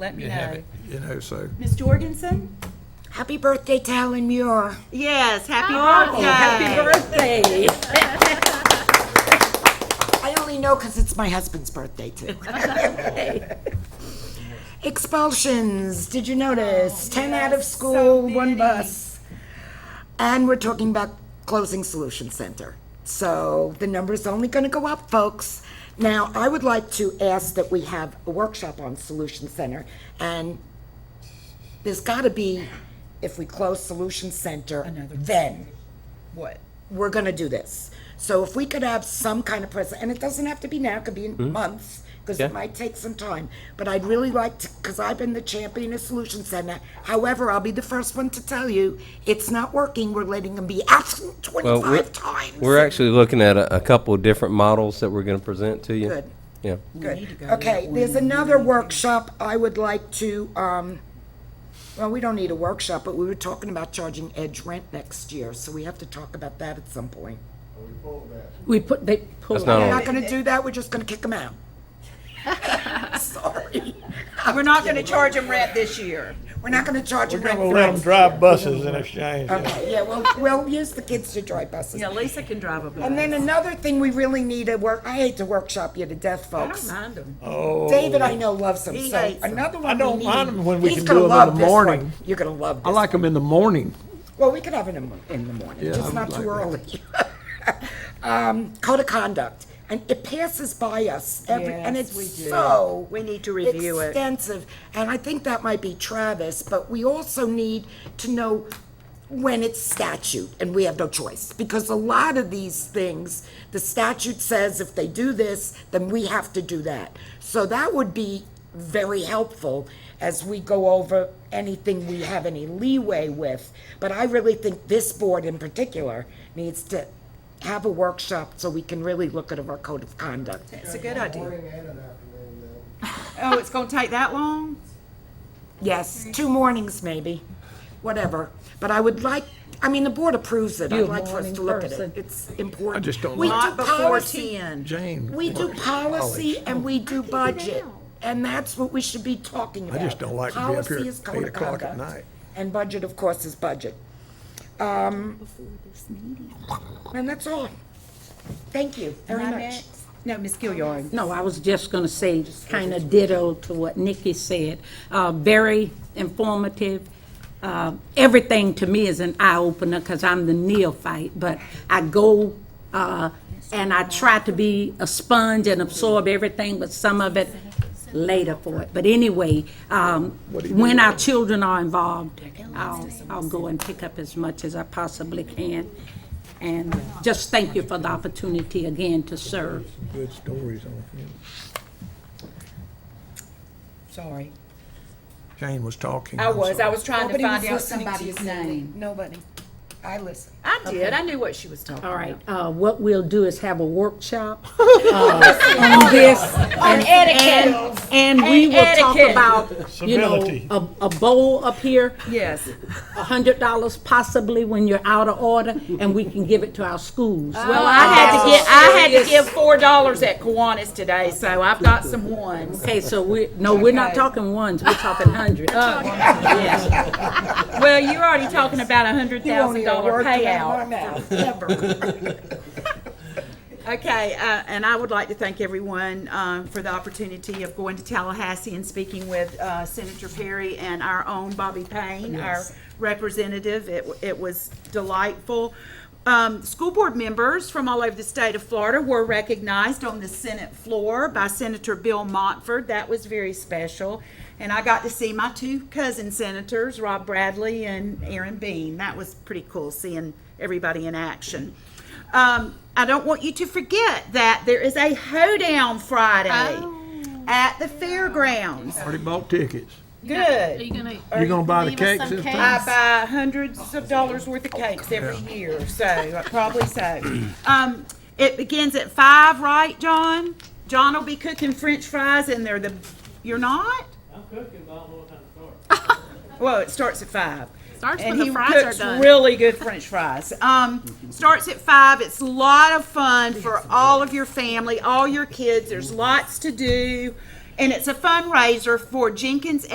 let me you have know. it, you know, so. Ms. Jorgensen? Happy birthday, Talon Muir. Yes, happy Oh, happy birthday. I only know because it's my husband's birthday, too. Expulsions, did you notice? 10 out of school, one bus. And we're talking about closing Solution Center. So the number's only going to go up, folks. Now, I would like to ask that we have a workshop on Solution Center, and there's got to be, if we close Solution Center, then What? we're going to do this. So if we could have some kind of present, and it doesn't have to be now, it could be in months, because it Hmm. Yeah. might take some time. But I'd really like to, because I've been the champion of Solution Center. However, I'll be the first one to tell you, it's not working. We're letting them be absent Well, we're, 25 times. we're actually looking at a, a couple of different models that we're gonna present to you. Good. Yeah. Good. Okay, there's another workshop I would like to, um, well, we don't need a workshop, but we were talking about charging edge rent next year, so we have to talk about that at some point. We put, they pulled That's not We're on. not gonna do that, we're just gonna kick them out. Sorry, We're not gonna charge them rent this year. we're not gonna charge them rent. We'll for let them next drive year. buses in exchange. yeah. Okay, yeah, well, we'll use the kids to drive buses. Lisa can drive a And bus. then another thing we really need to work, I hate to workshop you to death, folks. mind them. David, I know, loves them, He so hates 'em. another one I don't we mind need- 'em when we he's can gonna do 'em in love the this one. morning. You're gonna love I this. like them in the morning. Well, we could have it in, the- in the morning, Yeah, just I not would too like early. Um, Code of conduct, and it passes by us every, and Yes, it's we do. so. We need to review it. Extensive, and I think that might be Travis, but we also need to know when it's statute, and we have no choice. Because a lot of these things, the statute says if they do this, then we have to do that. So that would be very helpful as we go over anything we have any leeway with. But I really think this board in particular needs to have a workshop so we can really look at our code of conduct. It's a good idea. Oh, it's gonna take that long? Yes, two mornings maybe, whatever. But I would like, I mean, the board approves it. I'd You're a like for us morning to look at it. person. It's important. I just don't We like- do Not before policy- ten. Jane, We do policy and we do budget, and that's what we should be talking about. just don't like to be up here Policy is at code of 8 o'clock at conduct, night. And budget, of course, is budget. Um, And that's all. Thank you very Am I much. next? No, Ms. Gilliard. No, I was just going to say, kind of ditto to what Nikki said. Uh, Very informative. Uh, Everything to me is an eye-opener because I'm the neophyte, but I go uh, and I try to be a sponge and absorb everything, but some of it later for it. But anyway, um, when our children are involved, I'll, I'll go and pick up as much as I possibly can. And just thank you for the opportunity again to serve. good stories on him. Sorry. Jane was talking. I I'm was, I sorry. was trying to Nobody find was out listening to somebody's you. name. Nobody. I listen. I did, I knew what she was talking All about. right, uh, what we'll do is have a workshop uh, on this. On etiquette. And we And will talk etiquette. about, you know, Civility. a a bowl up here, Yes, a hundred dollars possibly when you're out of order, and we can give it to our schools. well, I had to get, I had to give four dollars at Kiwanis today, so I've got some ones. Okay, so we, no, we're not Okay. Uh, talking ones, we're talking hundreds. Well, you're already talking about a hundred thousand dollar payout. Okay, uh, and I would like to thank everyone um, for the opportunity of going to Tallahassee and speaking with uh, Senator Perry and our own Bobby Payne, our representative. It w- it was delightful. Um, School board members from all over the state of Florida were recognized on the Senate floor by Senator Bill Montford. That was very special. And I got to see my two cousin senators, Rob Bradley and Aaron Bean. That was pretty cool, seeing everybody in action. Um, I don't want you to forget that there is a hoedown Friday at the fairgrounds. Already bought tickets. Good. Are you gonna? You gonna buy the leave us cakes some this cakes? time? I buy hundreds of dollars worth of cakes every year, so probably so. Um, it begins at five, right, John? John will be cooking French fries, and they're the. You're not? I'm cooking, but I don't know what time to start. Well, it starts at five. Starts and when the he fries are cooks done. really good French fries. Um, starts at five. It's a lot of fun for all of your family, all your kids. There's lots to do, And it's a fundraiser for Jenkins